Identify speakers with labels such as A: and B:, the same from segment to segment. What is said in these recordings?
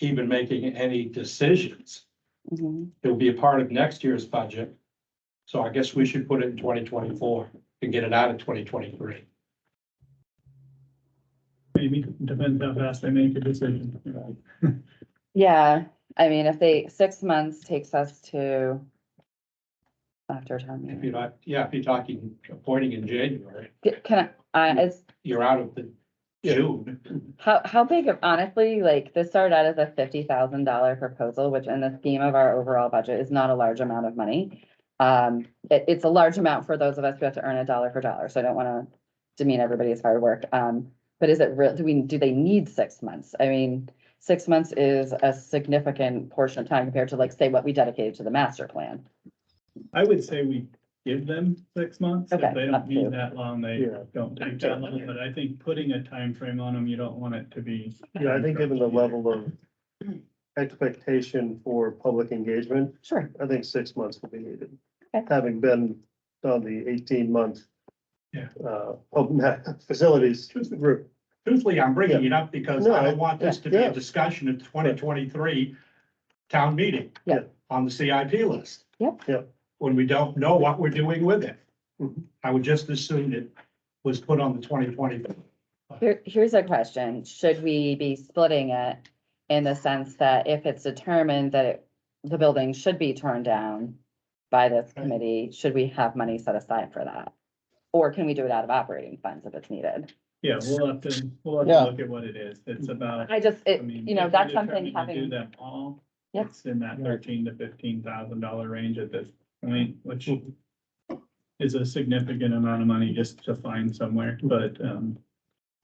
A: even making any decisions.
B: Mhm.
A: It will be a part of next year's budget. So I guess we should put it in twenty twenty-four and get it out of twenty twenty-three.
C: Maybe depends how fast they make a decision.
B: Yeah, I mean, if they, six months takes us to after town
A: If you're
B: meeting.
A: not, yeah, if you're talking appointing in January,
B: C- Can I, I- is,
A: you're out of the June.
B: how, how big of, honestly, like, this started out as a fifty thousand dollar proposal, which in the scheme of our overall budget is not a large amount of money. Um, it, it's a large amount for those of us who have to earn a dollar for dollar, so I don't wanna demean everybody's hard work. Um, but is it real, do we, do they need six months? I mean, six months is a significant portion of time compared to like, say, what we dedicated to the master plan.
C: I would say we give them six months. If
B: Okay,
C: they
B: up
C: don't
B: to.
C: need that long, they
D: Yeah.
C: don't take that long, but I think putting a time frame on them, you don't want it to be.
D: Yeah, I think given the level of expectation for public engagement,
B: Sure.
D: I think six months will be needed.
B: Okay.
D: Having been on the eighteen month.
A: Yeah.
D: Uh, open facilities route.
A: Truthfully, I'm bringing it up because I don't want this to be
D: Yeah.
A: a discussion at twenty twenty-three town meeting.
B: Yeah.
A: On the CIP list.
B: Yep.
D: Yep.
A: When we don't know what we're doing with it.
D: Mhm.
A: I would just assume it was put on the twenty twenty.
B: Here, here's a question. Should we be splitting it in the sense that if it's determined that it- the building should be torn down by this
A: Right.
B: committee, should we have money set aside for that? Or can we do it out of operating funds if it's needed?
C: Yeah, we'll have to, we'll have
D: Yeah.
C: to look at what it is. It's about.
B: I just,
C: I
B: it,
C: mean,
B: you know,
C: if we're
B: that's something
C: determined to Do
B: having,
C: them all.
B: Yep.
C: It's in that thirteen to fifteen thousand dollar range at this point, which is a significant amount of money just to find somewhere, but, um,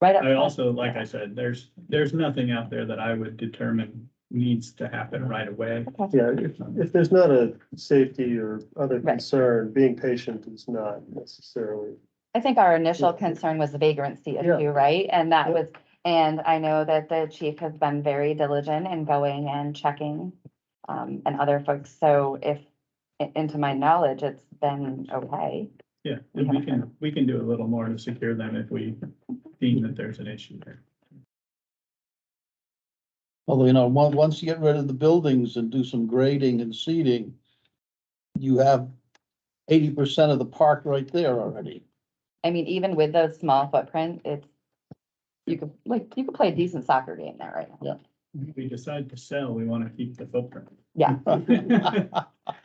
B: right up.
C: I
B: front.
C: also, like I said, there's, there's nothing out there that I would determine needs to happen right away.
B: Okay.
D: Yeah, if, if there's not a safety or other
B: Right.
D: concern, being patient is not necessarily.
B: I think our initial concern was the vagrancy
D: Yeah.
B: issue, right? And that
D: Yeah.
B: was, and I know that the chief has been very diligent in going and checking um, and other folks. So if, i- into my knowledge, it's been okay.
C: Yeah, and we can, we can do a little more to secure them if we deem that there's an issue there.
E: Although, you know, on- once you get rid of the buildings and do some grading and seeding, you have eighty percent of the park right there already.
B: I mean, even with those small footprint, it's, you could, like, you could play a decent soccer game there right now.
C: If we decide to sell, we want to keep the footprint.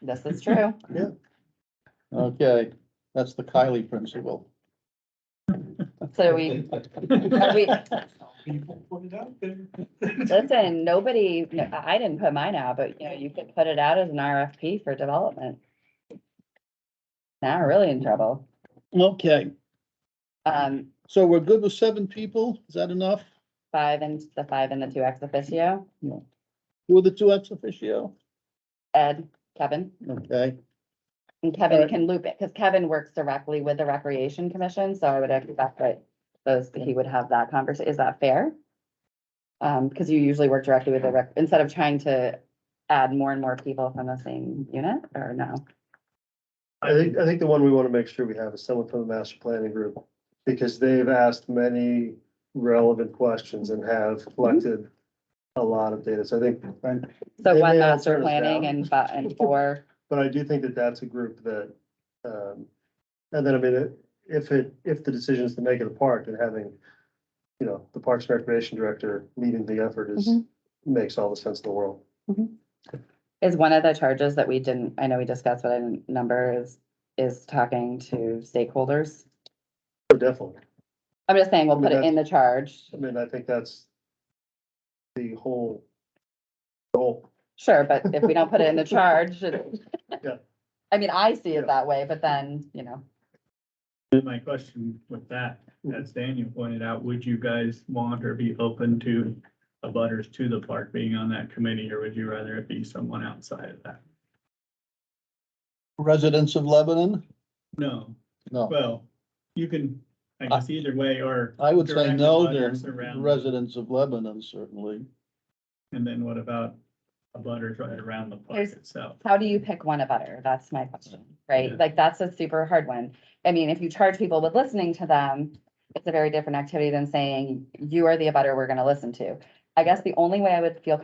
B: This is true.
E: Okay, that's the Kylie principle.
B: So we, are we,
A: People put it out there.
B: listen, nobody, no, I I didn't put mine out, but you know, you could put it out as an RFP for development. Now we're really in trouble.
E: Okay,
B: Um,
E: so we're good with seven people? Is that enough?
B: five and the five and the two ex officio,
E: Who are the two ex officio?
B: Ed, Kevin,
E: Okay,
B: and Kevin
E: Alright.
B: can loop it, because Kevin works directly with the Recreation Commission, so I would expect that those, he would have that conversation. Is that fair? Um, because you usually work directly with the rec, instead of trying to add more and more people from the same unit, or no?
D: I think, I think the one we want to make sure we have is someone from the master planning group, because they've asked many relevant questions and have collected a lot of data. So I think,
B: So
D: They
B: one
D: may all
B: master
D: turn us
B: planning
D: down.
B: and, fi- and four,
D: but I do think that that's a group that, um, and then, I mean, it- if it, if the decision is to make it a park and having, you know, the Parks and Recreation Director leading the effort is,
B: Mhm.
D: makes all the sense in the world.
B: is one of the charges that we didn't, I know we discussed, but I didn't number is, is talking to stakeholders.
D: So Definitely.
B: I'm just saying, we'll put it in the charge.
D: I mean, I think that's the whole goal.
B: Sure, but if we don't put it in the charge, it-
D: Yeah.
B: I mean, I see
D: Yeah.
B: it that way, but then, you know,
C: And My question with that, as Daniel pointed out, would you guys want or be open to a butters to the park being on that committee, or would you rather it be someone outside of that?
E: residents of Lebanon?
C: No,
E: No,
C: well, you can, I guess either way, or,
E: I would say
C: Direct
E: no, they're
C: abutters around.
E: residents of Lebanon certainly.
C: and then what about a butters right around the park
B: There's-
C: itself?
B: how do you pick one a butter? That's my question,
C: Yeah.
B: right? Like, that's a super hard one. I mean, if you charge people with listening to them, it's a very different activity than saying, you are the abutter we're gonna listen to. I guess the only way I would feel